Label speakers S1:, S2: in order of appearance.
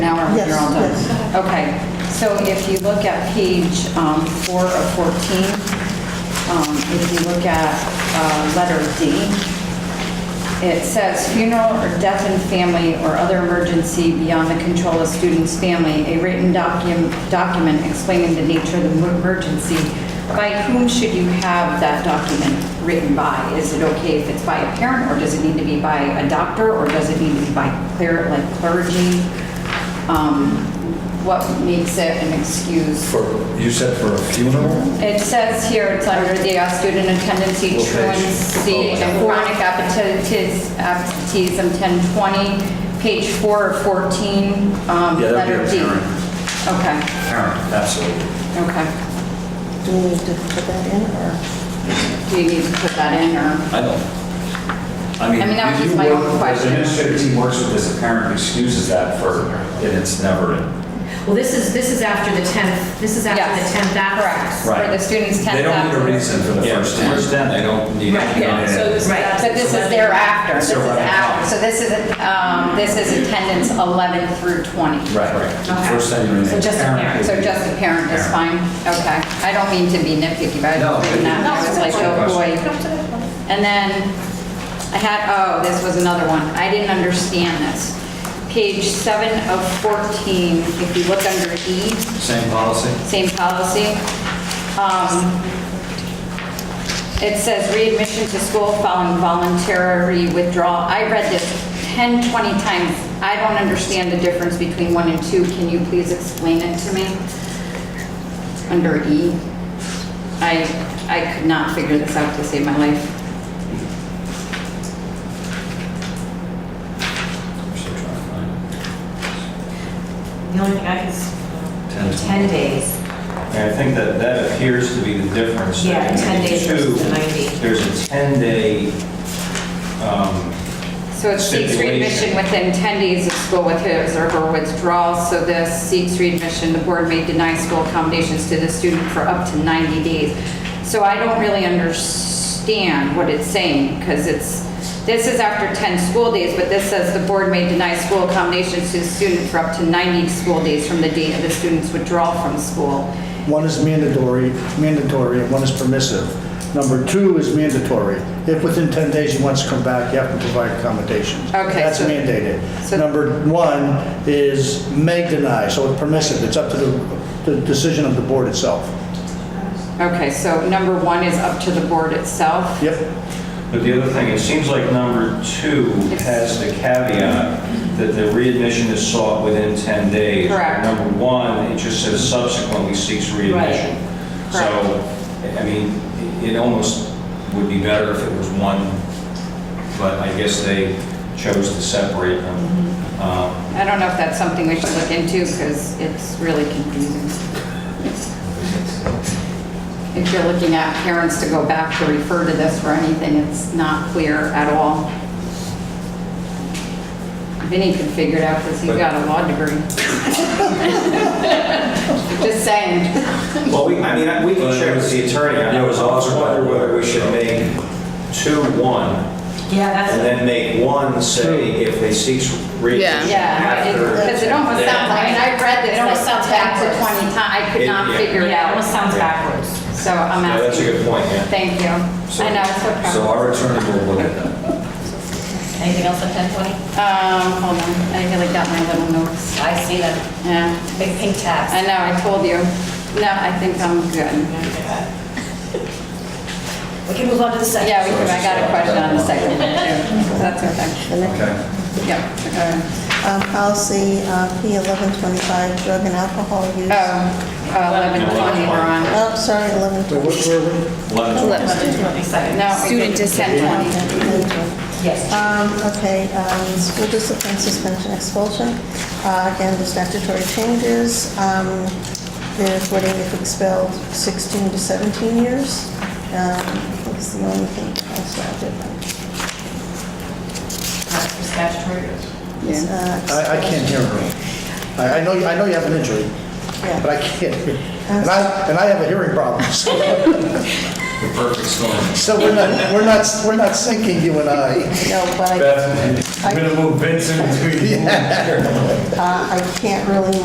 S1: you're all done. Okay, so if you look at page um, four of 14, um, if you look at uh, letter D, it says funeral or death in family or other emergency beyond the control of student's family, a written document, document explaining the nature of the emergency. By whom should you have that document written by? Is it okay if it's by a parent, or does it need to be by a doctor, or does it need to be by clear, like clergy? Um, What makes it an excuse?
S2: For, you said for a funeral?
S1: It says here, it's under the uh, student attendancy
S2: What page? Oh,
S1: truancy and chronic absenteeis- absenteeism, 1020, page 4 of 14, um,
S2: Yeah, that'd be
S1: letter
S2: a
S1: D.
S2: parent.
S1: Okay,
S2: Parent, absolutely.
S1: okay.
S3: Do we need to put that in, or?
S1: Do you need to put that in, or?
S2: I don't. I mean,
S1: I mean, that was
S2: if
S1: just
S2: you
S1: my own
S2: work-
S1: question.
S2: As administrative team works with this, a parent excuses that for, and it's never,
S4: Well, this is, this is after the 10th, this is after the
S1: Yes,
S4: 10th
S1: Correct,
S4: absence.
S1: for the
S2: Right.
S1: student's 10th.
S2: they don't need a
S1: absence.
S2: reason for the
S5: Yeah,
S2: first ten.
S5: first then, they don't need.
S4: Right, yeah,
S5: to-
S4: so this is
S1: Right,
S4: after
S1: but this
S4: the
S1: is
S4: 11th.
S1: thereafter, this is
S2: Correct.
S1: after, so this is, um, this is attendance 11 through 20.
S2: Right,
S4: Okay.
S2: right. First time you're in.
S4: So just a parent.
S2: would
S1: So
S2: be-
S1: just a parent is fine? Okay. I don't mean to be nitpicky, but I
S2: No,
S1: was reading that, and I was like, oh, boy. And then, I had, oh, this was another one. I didn't understand this. Page seven of 14, if you look under E,
S2: Same policy?
S1: same policy. um, It says readmission to school following voluntary withdrawal. I read this 10, 20 times. I don't understand the difference between one and two. Can you please explain it to me? Under E. I, I could not figure this out to save my life.
S2: I'm still trying to find it.
S6: The only thing I can, s-
S2: Ten.
S6: 10 days.
S5: And I think that that appears to be the difference.
S6: Yeah,
S5: That
S6: 10 days
S5: two,
S6: versus the 90.
S5: There's a 10-day, um,
S1: So it seeks
S5: Stipulation.
S1: readmission within 10 days of school with his or her withdrawal. So this seeks readmission, the board may deny school accommodations to the student for up to 90 days. So I don't really understand what it's saying because it's, this is after 10 school days, but this says the board may deny school accommodations to the student for up to 90 school days from the date of the student's withdrawal from school.
S7: One is mandatory, mandatory, and one is permissive. Number two is mandatory. If within 10 days he wants to come back, you have to provide accommodations.
S1: Okay,
S7: That's
S1: so-
S7: mandated.
S1: so-
S7: Number one is may deny, so it's permissive. It's up to the, the decision of the board itself.
S1: Okay, so number one is up to the board itself?
S7: Yep,
S5: but the other thing, it seems like number two has the caveat that the readmission is sought within 10 days.
S1: Correct.
S5: Number one, it just says subsequently seeks readmission. So, I mean, it almost would be better if it was one, but I guess they chose to separate them. Um,
S1: I don't know if that's something we should look into, because it's really confusing. If you're looking at parents to go back to refer to this for anything, it's not clear at all. Vinny could figure it out, because he's got a law degree. Just saying.
S5: Well, we, I mean, I- we can check with the attorney. I
S2: Yeah, it
S5: was
S2: was
S5: also wondering whether we should make two one,
S6: Yeah, that's.
S5: and then make one say if they seek relief
S3: Yeah.
S1: Yeah,
S5: after.
S1: because it almost sounds like, and I read this,
S6: It almost
S1: like,
S6: sounds
S1: back to 20
S6: backwards.
S1: times, I could
S5: It-
S1: not
S5: yeah.
S1: figure it
S6: Yeah, it almost
S1: out.
S6: sounds backwards.
S1: So I'm
S5: Yeah,
S1: asking.
S5: that's a good point, yeah.
S1: Thank you. I know, it's okay.
S2: So our attorney will look at that.
S4: Anything else on 1020?
S1: Um, hold on, I really got my little notes.
S4: I see them,
S1: Yeah,
S4: big pink tabs.
S1: I know, I told you. No, I think I'm good.
S4: We can move on to the second.
S1: Yeah, we can, I got a question on the second one too, so that's okay.
S3: the next.
S2: Okay.
S1: Yeah, okay.
S3: Uh, Policy uh, P1125, drug and alcohol use.
S1: Oh, uh, 1120 we're on.
S3: Oh, sorry, 1125.
S1: No, student dissent 20.
S4: Yes.
S3: Um, Okay, um, school discipline, suspension, expulsion. Uh, Again, the statutory changes. Um, There's what if expelled 16 to 17 years. Um, I think it's the only thing else that I did.
S6: That's for statutory.
S1: Yeah.
S3: uh,
S7: I, I can't hear her. I, I know, I know you have an injury,
S3: Yeah.
S7: but I can't. hear. And I, and I have a hearing problem, so
S2: The perfect storm.
S7: so we're not, we're not, we're not sinking, you and I.
S3: No, but I-
S8: Beth, I'm gonna move Vincent to you.
S3: uh, I can't really